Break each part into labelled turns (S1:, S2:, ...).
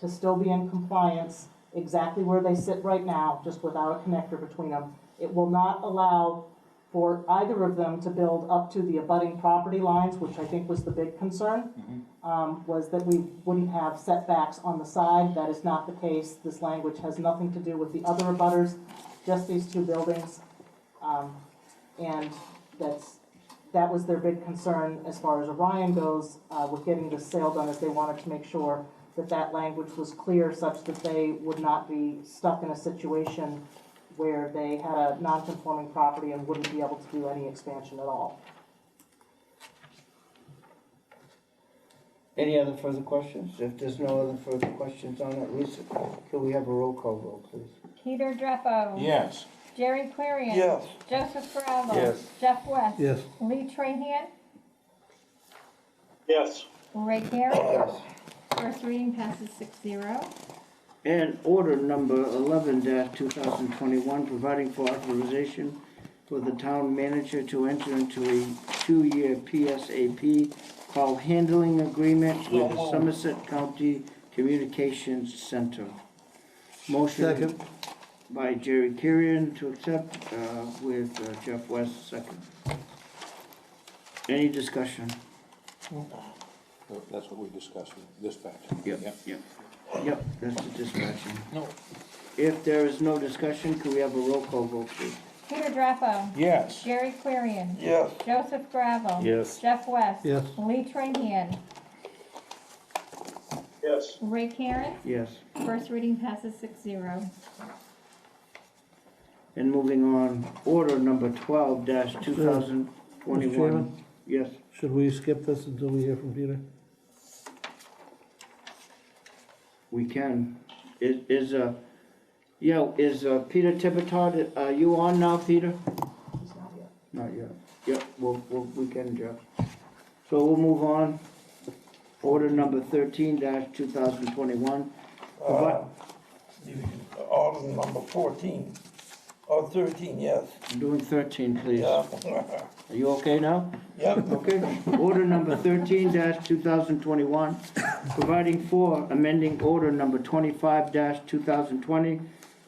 S1: to still be in compliance exactly where they sit right now, just without a connector between them. It will not allow for either of them to build up to the abutting property lines, which I think was the big concern, um, was that we wouldn't have setbacks on the side. That is not the case. This language has nothing to do with the other abutters, just these two buildings. Um, And that's, that was their big concern as far as Orion goes uh, with getting this sale done, is they wanted to make sure that that language was clear such that they would not be stuck in a situation where they had a non-conforming property and wouldn't be able to do any expansion at all.
S2: Any other further questions? If there's no other further questions on it, Lisa, can we have a roll call vote, please?
S3: Peter Dreppo.
S4: Yes.
S3: Jerry Clarion. Joseph Ferraro.
S4: Yes.
S3: Jeff West.
S5: Yes.
S3: Lee Trahan.
S6: yes,
S3: Ray Gary.
S2: Yes.
S3: First reading passes six zero.
S2: And order number eleven two thousand twenty-one, providing for authorization for the town manager to enter into a two-year PSAP call handling agreement with the Somerset County Communications Center. Motion
S5: Second,
S2: by Jerry Kirian to accept, uh, with uh, Jeff West second. Any discussion?
S4: That's what we discussed, dispatch.
S2: Yep. Yep, that's the discussion.
S4: No.
S2: If there is no discussion, can we have a roll call vote, please?
S3: Peter Dreppo.
S4: Yes.
S3: Jerry Clarion.
S4: Yes.
S3: Joseph Gravel. Yes. Jeff West.
S5: Yes.
S3: Lee Trahan.
S6: yes,
S3: Ray Karen.
S2: Yes.
S3: First reading passes six zero.
S2: And moving on, order number twelve dash two thousand
S5: Mr. Chairman?
S2: twenty-one. Yes,
S5: should we skip this until we hear from Peter?
S2: we can. Is, is, uh, yeah, is, uh, Peter Tippetod, are you on now, Peter?
S1: It's not yet.
S2: Not yet. Yep, we'll, we'll, we can, Jeff. So we'll move on. Order number thirteen dash two thousand twenty-one. Uh,
S7: Order Um, number fourteen, or thirteen, yes.
S2: I'm doing thirteen, please.
S7: Yeah.
S2: Are you okay now?
S7: Yep,
S2: Okay. Order number thirteen two thousand twenty-one, providing for amending order number twenty-five two thousand twenty,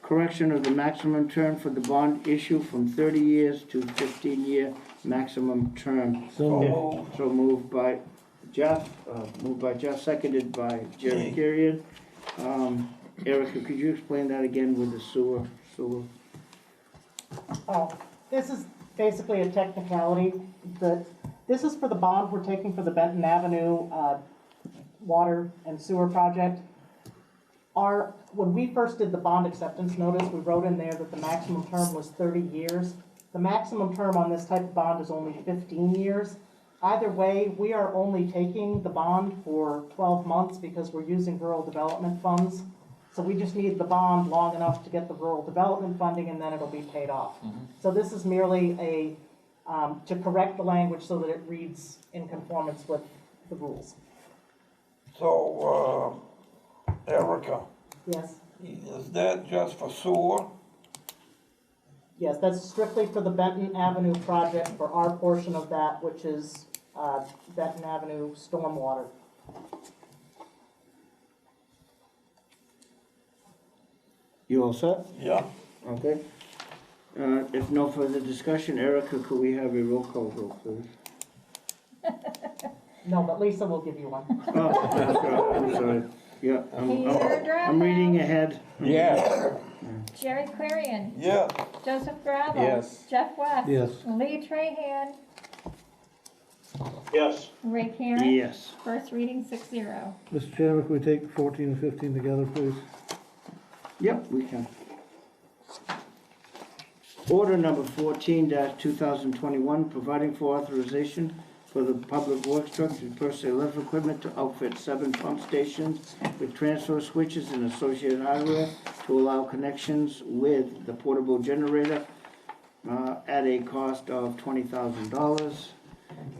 S2: correction of the maximum term for the bond issue from thirty years to fifteen-year maximum term.
S5: So
S7: moved.
S2: So moved by Jeff, uh, moved by Jeff, seconded by Jerry Kirian. Um, Erica, could you explain that again with the sewer, sewer?
S1: Oh, this is basically a technicality, that, this is for the bond we're taking for the Benton Avenue, uh, water and sewer project. Our, when we first did the bond acceptance notice, we wrote in there that the maximum term was thirty years. The maximum term on this type of bond is only fifteen years. Either way, we are only taking the bond for twelve months because we're using rural development funds. So we just need the bond long enough to get the rural development funding and then it'll be paid off. So this is merely a, um, to correct the language so that it reads in conformance with the rules.
S7: So, uh, Erica,
S1: Yes,
S7: is that just for sewer?
S1: yes, that's strictly for the Benton Avenue project for our portion of that, which is, uh, Benton Avenue stormwater.
S2: You all set?
S7: Yeah,
S2: Okay. Uh, If no further discussion, Erica, could we have a roll call vote, please?
S1: No, but Lisa will give you one.
S2: Oh, I'm sorry, I'm sorry. Yeah, I'm,
S3: Peter
S2: I'm-
S3: Dreppo.
S2: I'm reading ahead.
S4: Yes.
S3: Jerry Clarion.
S7: yeah,
S3: Joseph Gravel.
S4: Yes.
S3: Jeff West.
S5: Yes.
S3: Lee Trahan.
S6: yes,
S3: Ray Karen.
S2: Yes.
S3: First reading six zero.
S5: Mr. Chairman, can we take fourteen and fifteen together, please?
S2: Yep, we can. Order number fourteen two thousand twenty-one, providing for authorization for the public works truck to purchase lift equipment to outfit seven pump stations with transfer switches and associated hardware to allow connections with the portable generator uh, at a cost of twenty thousand dollars.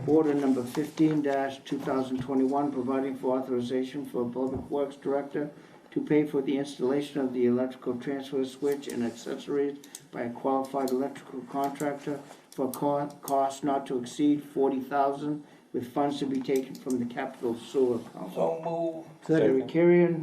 S2: Order number fifteen two thousand twenty-one, providing for authorization for Public Works Director to pay for the installation of the electrical transfer switch and accessories by a qualified electrical contractor for co- cost not to exceed forty thousand, with funds to be taken from the capital sewer account.
S7: so move.
S5: Second.
S2: Jerry Kirian,